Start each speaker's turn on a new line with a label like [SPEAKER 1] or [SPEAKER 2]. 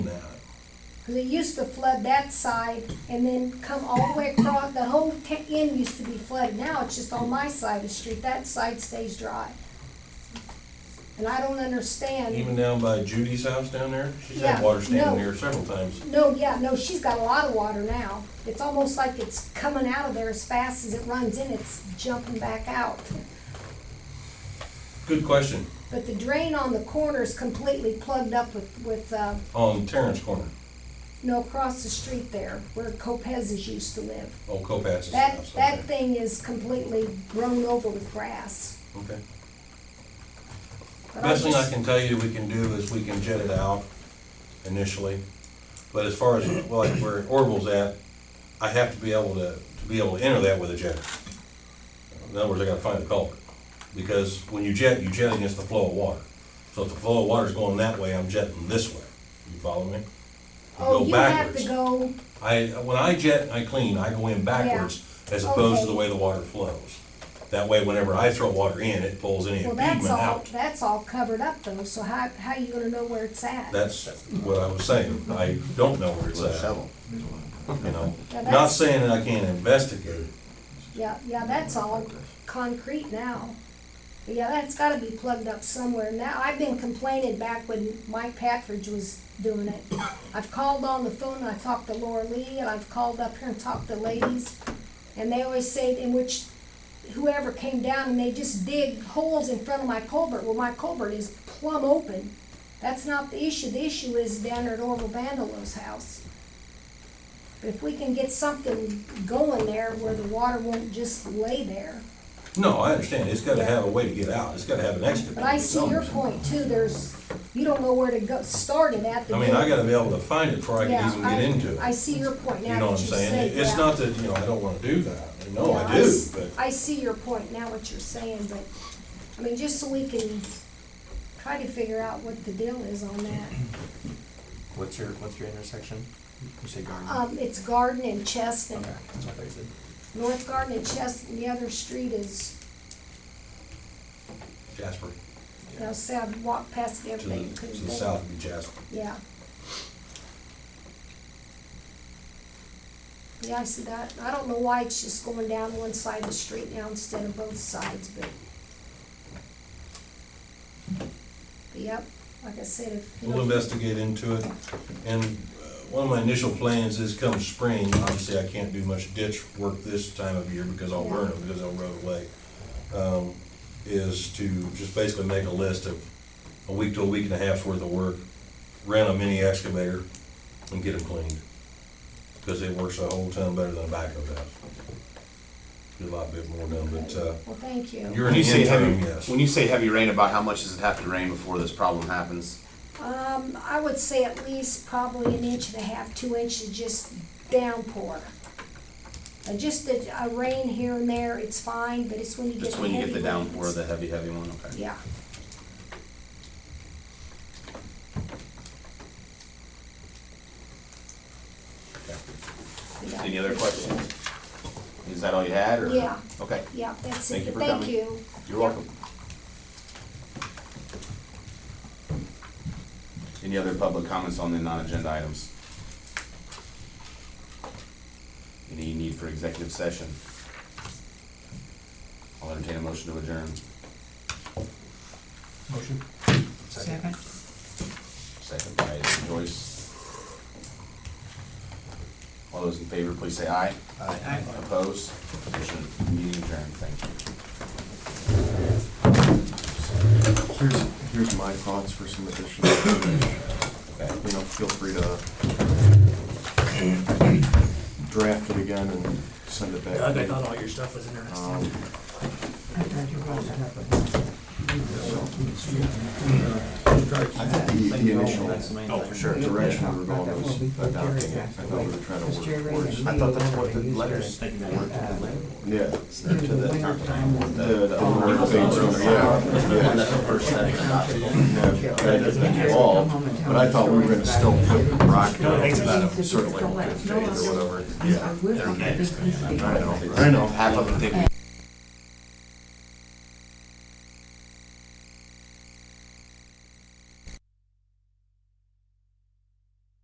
[SPEAKER 1] And they used to flood that side and then come all the way across, the whole ta- end used to be flooded. Now it's just on my side of the street, that side stays dry. And I don't understand.
[SPEAKER 2] Even down by Judy's house down there, she's
[SPEAKER 1] Yeah,
[SPEAKER 2] had water
[SPEAKER 1] no.
[SPEAKER 2] standing there several times.
[SPEAKER 1] No, yeah, no, she's got a lot of water now. It's almost like it's coming out of there as fast as it runs in, it's jumping back out.
[SPEAKER 2] Good question,
[SPEAKER 1] But the drain on the corner is completely plugged up with, with, uh,
[SPEAKER 2] on Terrence Corner,
[SPEAKER 1] no, across the street there, where Copez's used to live.
[SPEAKER 2] old Copas's
[SPEAKER 1] That,
[SPEAKER 2] house.
[SPEAKER 1] that
[SPEAKER 2] Okay.
[SPEAKER 1] thing is completely grown over with grass.
[SPEAKER 2] Okay.
[SPEAKER 1] But
[SPEAKER 2] Best thing I
[SPEAKER 1] just-
[SPEAKER 2] can tell you we can do is we can jet it out initially, but as far as, well, like where Orville's at, I have to be able to, to be able to enter that with a jetter. In other words, I gotta find the culvert, because when you jet, you jet against the flow of water. So if the flow of water's going that way, I'm jetting this way, you follow me? You
[SPEAKER 1] Oh,
[SPEAKER 2] go
[SPEAKER 1] you have
[SPEAKER 2] backwards.
[SPEAKER 1] to go,
[SPEAKER 2] I, when I jet and I clean, I go in backwards as opposed to the way the water flows. That way, whenever I throw water in, it pulls any
[SPEAKER 1] well,
[SPEAKER 2] impediment
[SPEAKER 1] that's all,
[SPEAKER 2] out.
[SPEAKER 1] that's all covered up though, so how, how you gonna know where it's at?
[SPEAKER 2] That's what I was saying. I don't know where it's
[SPEAKER 3] With a
[SPEAKER 2] at,
[SPEAKER 3] shovel.
[SPEAKER 2] you know?
[SPEAKER 1] Yeah,
[SPEAKER 2] Not
[SPEAKER 1] that's-
[SPEAKER 2] saying that I can't investigate.
[SPEAKER 1] Yeah, yeah, that's all concrete now. But yeah, that's gotta be plugged up somewhere now. I've been complaining back when Mike Patridge was doing it. I've called on the phone, and I talked to Laura Lee, and I've called up here and talked to ladies. And they always say, in which whoever came down and they just dig holes in front of my culvert, well, my culvert is plumb open. That's not the issue, the issue is down there at Orville Vandalo's house. But if we can get something going there where the water won't just lay there.
[SPEAKER 2] No, I understand. It's gotta have a way to get out. It's gotta have an exit.
[SPEAKER 1] But I see your point too, there's, you don't know where to go, start it at the.
[SPEAKER 2] I mean, I gotta be able to find it before I can
[SPEAKER 1] Yeah,
[SPEAKER 2] even get
[SPEAKER 1] I-
[SPEAKER 2] into
[SPEAKER 1] I
[SPEAKER 2] it.
[SPEAKER 1] see your point
[SPEAKER 2] You know
[SPEAKER 1] now that
[SPEAKER 2] what I'm
[SPEAKER 1] you say
[SPEAKER 2] saying?
[SPEAKER 1] that.
[SPEAKER 2] It's not that, you know, I don't wanna do that. No,
[SPEAKER 1] Yeah,
[SPEAKER 2] I do,
[SPEAKER 1] s-
[SPEAKER 2] but.
[SPEAKER 1] I see your point now, what you're saying, but, I mean, just so we can try to figure out what the deal is on that.
[SPEAKER 3] What's your, what's your intersection? You say garden?
[SPEAKER 1] Um, it's Garden and Chestnut,
[SPEAKER 3] Okay, that's what I thought you said.
[SPEAKER 1] North Garden and Chestnut, the other street is,
[SPEAKER 2] Jasper,
[SPEAKER 1] you know, see, I've walked past it
[SPEAKER 2] to
[SPEAKER 1] every day,
[SPEAKER 2] the,
[SPEAKER 1] couldn't
[SPEAKER 2] to the
[SPEAKER 1] think.
[SPEAKER 2] south would be Jasper.
[SPEAKER 1] Yeah. Yeah, I see that. I don't know why it's just going down one side of the street now instead of both sides, but. But yep, like I said, if. you
[SPEAKER 2] We'll
[SPEAKER 1] know-
[SPEAKER 2] investigate into it, and uh, one of my initial plans is come spring, obviously I can't do much ditch work this time of year because I'll burn them, because they'll rot away. um, Is to just basically make a list of a week to a week and a half's worth of work, rent a mini excavator, and get them cleaned. Because it works a whole ton better than a backhoe does. Get a lot bit more done, but, uh,
[SPEAKER 1] Well, thank you.
[SPEAKER 2] you're an
[SPEAKER 4] When you say
[SPEAKER 2] interim,
[SPEAKER 4] heavy,
[SPEAKER 2] yes.
[SPEAKER 4] when you say heavy rain, about how much does it have to rain before this problem happens?
[SPEAKER 1] Um, I would say at least probably an inch and a half, two inches, just downpour. Uh, Just a, a rain here and there, it's fine, but it's when you get the
[SPEAKER 4] Just when you get
[SPEAKER 1] heavy
[SPEAKER 4] the downpour,
[SPEAKER 1] rains.
[SPEAKER 4] the heavy, heavy one, okay?
[SPEAKER 1] Yeah. Yeah.
[SPEAKER 4] Any other questions? Is that all you had, or?
[SPEAKER 1] Yeah.
[SPEAKER 4] Okay,
[SPEAKER 1] Yeah, that's
[SPEAKER 4] Thank
[SPEAKER 1] it,
[SPEAKER 4] you for
[SPEAKER 1] thank
[SPEAKER 4] coming.
[SPEAKER 1] you.
[SPEAKER 4] you're welcome. Any other public comments on the non-agenda items? Any need for executive session? I'll entertain a motion to adjourn.
[SPEAKER 3] Motion.
[SPEAKER 5] Second.
[SPEAKER 4] Second by Joyce. All those in favor, please say aye.
[SPEAKER 5] Aye.
[SPEAKER 4] Opposed? Motion, meeting adjourned, thank you.
[SPEAKER 6] Here's, here's my thoughts for some additional,
[SPEAKER 4] Okay.
[SPEAKER 6] you know, feel free to draft it again and send it back.
[SPEAKER 7] Doug, I thought all your stuff was interesting.
[SPEAKER 6] Um,
[SPEAKER 5] I thought you brought that up, but-
[SPEAKER 6] I think the, the initial
[SPEAKER 4] Oh, for sure.
[SPEAKER 6] direction we were going was adopting it, I thought we were trying to work towards.
[SPEAKER 5] I thought that's what the letters were to the.
[SPEAKER 6] Yeah.
[SPEAKER 5] To the wintertime was
[SPEAKER 6] The,
[SPEAKER 5] the.
[SPEAKER 6] the other things, yeah, yeah. Yeah, that has been evolved, but I thought we were gonna still put the rock down about a certain like fifth phase or whatever.
[SPEAKER 5] I wish I had a big piece of paper.
[SPEAKER 6] I know.
[SPEAKER 4] Half of them think we